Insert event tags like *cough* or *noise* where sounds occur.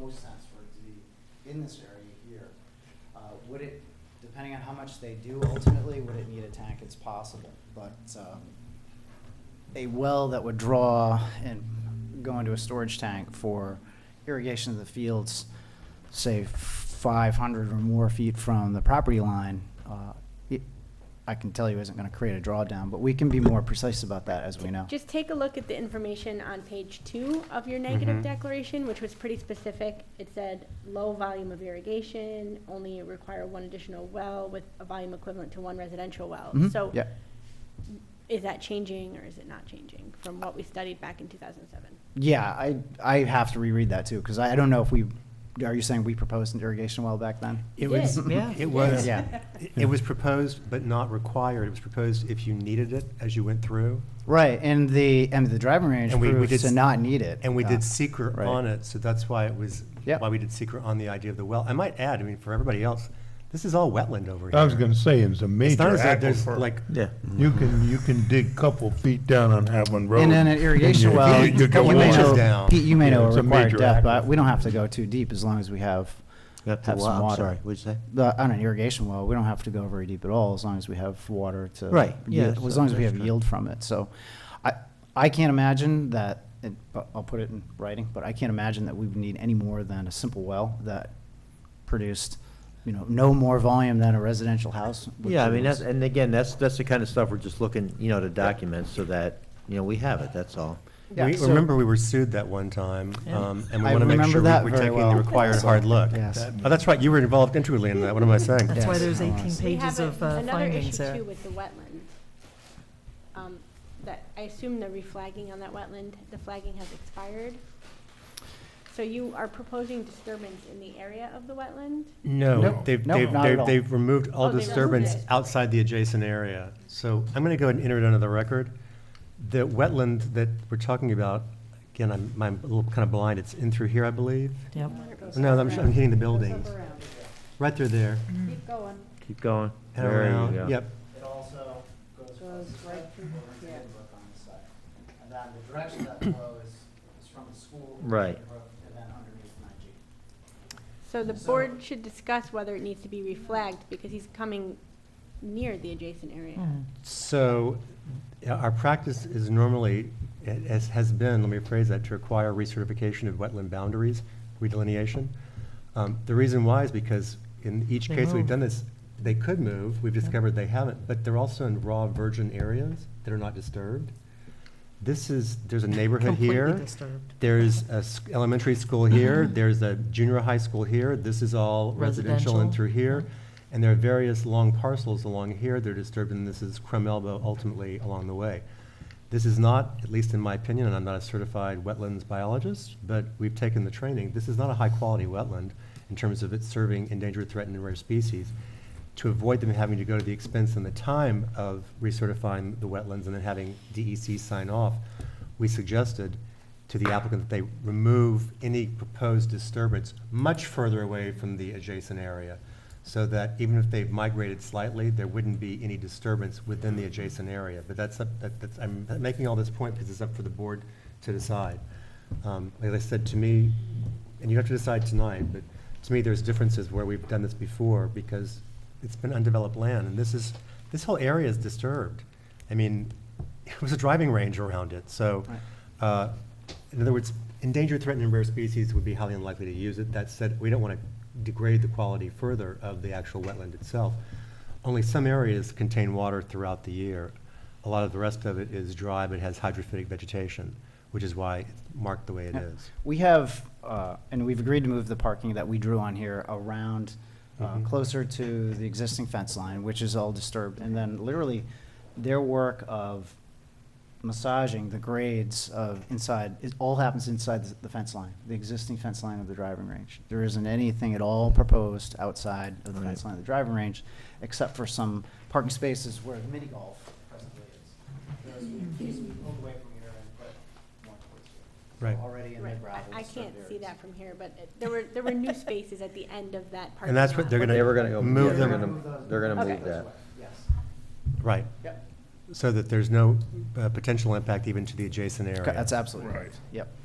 no sense for it to be in this area here. Uh, would it, depending on how much they do ultimately, would it need a tank? It's possible, but, um, a well that would draw and go into a storage tank for irrigation of the fields, say five hundred or more feet from the property line, uh, it- I can tell you isn't gonna create a drawdown, but we can be more precise about that as we know. Just take a look at the information on page two of your negative Mhm. declaration, which was pretty specific. It said, low volume of irrigation, only require one additional well with a volume equivalent to one residential well. Mhm, So Yeah, is that changing or is it not changing from what we studied back in two thousand and seven? yeah, I, I have to reread that too, because I I don't know if we, are you saying we proposed an irrigation well back then? It Yeah. was, Yeah. *laughs* it was, Yeah. it- it was proposed but not required. It was proposed if you needed it as you went through. Right, and the, and the driving range And we- we proved did to s- not need it. And we uh, did secret right. on it, so that's why it was, Yep. why we did secret on the idea of the well. I might add, I mean, for everybody else, this is all wetland over here. I was gonna say, it's a It's major not as though there's aquifer. like, Yeah. Mm-hmm. You can, you can dig couple feet down on Havlin Road. And then an irrigation you- well, you- you Pete, go you may on. in. know, Down. Pete, you may Yeah, know a it's a required major depth, but aquifer. we don't have to go too deep as long as we have, Have Have some I'm water. Sorry, what'd you say? the- on an irrigation well, we don't have to go very deep at all, as long as we have water to. Right, yeah, yield- As long as we that's have true. yield from it, so I, I can't imagine that, it- but I'll put it in writing, but I can't imagine that we would need any more than a simple well that produced, you know, no more volume than a residential house. would Yeah, I mean, that's, produce. and again, that's, that's the kind of stuff we're just looking, you know, to document so that, you know, we have it, that's all. Yeah, we, so- remember we were sued that one time, Yeah. um, and we I want to make remember sure that we- we're very taking well. the required hard look. Yes. Oh, that's right, you were involved intricately in that, what am I saying? Yeah. That's why Yes. there's Oh, I 18 see. We have pages a- of uh, findings Another issue there. too with the wetland. Um, That, I assume the reflagging on that wetland, the flagging has expired. So you are proposing disturbance in the area of the wetland? No, Nope. they've, Nope, they've, not at they've, all. they've removed all Oh, they removed disturbance it. outside the adjacent area. So I'm gonna go ahead and enter it under the record. The wetland that we're talking about, again, I'm, I'm a little kind of blind, it's in through here, I believe. Yep. No, I'm, I'm hitting the buildings, right through there, Keep going, Keep going. and There you around, go. yep. It also goes from Goes this right side through, over into the yeah. book on this side. And then the direction that flow is, is from the school. Right. to the brook, And then underneath Nige. So the So- board should discuss whether it needs to be reflagged, because he's coming near the adjacent area. Mm. So yeah, our practice is normally, it has, has been, let me rephrase that, to require recertification of wetland boundaries, redelineation. Um, The reason why is because in each They case we've move. done this, they could move, we've discovered they haven't, but they're also in raw virgin areas that are not disturbed. This is, there's a neighborhood here. Completely disturbed. There's a s- elementary school here, *laughs* there's a junior high school here, this is all residential and Residential. through here. And there are various long parcels along here that are disturbed, and this is Crum Elbow ultimately along the way. This is not, at least in my opinion, and I'm not a certified wetlands biologist, but we've taken the training, this is not a high-quality wetland in terms of it serving endangered, threatened, and rare species. To avoid them having to go to the expense and the time of recertifying the wetlands and then having DEC sign off, we suggested to the applicant that they remove any proposed disturbance much further away from the adjacent area, so that even if they've migrated slightly, there wouldn't be any disturbance within the adjacent area. But that's, up- that- that's, I'm making all this point because it's up for the board to decide. Um, Like I said, to me, and you have to decide tonight, but to me, there's differences where we've done this before, because it's been undeveloped land, and this is, this whole area is disturbed. I mean, it was a driving range around it, so, uh, in other words, endangered, threatened, and rare species would be highly unlikely to use it. That said, we don't want to degrade the quality further of the actual wetland itself. Only some areas contain water throughout the year. A lot of the rest of it is dry, but has hydrophytic vegetation, which is why it's marked the way it Yeah. is. We have, uh, and we've agreed to move the parking that we drew on here around, uh, Mhm. closer to the existing fence line, which is all disturbed. And then literally, their work of massaging the grades of inside, it all happens inside the- the fence line, the existing fence line of the driving range. There isn't anything at all proposed outside of the fence Right. line of the driving range, except for some parking spaces where the mini golf presently is. Those we these we pulled away from here and put more towards here. Right. Already in the Right, gravel. I- I can't disturbed see areas. that from here, but it- there were, there were *laughs* new spaces at the end of that parking And that's what they're lot. gonna. They were gonna go- Move yeah, them. they're gonna- they're gonna move that. Yes, Right, yep, so that there's no uh, potential impact even to the adjacent area. that's absolutely right, yep.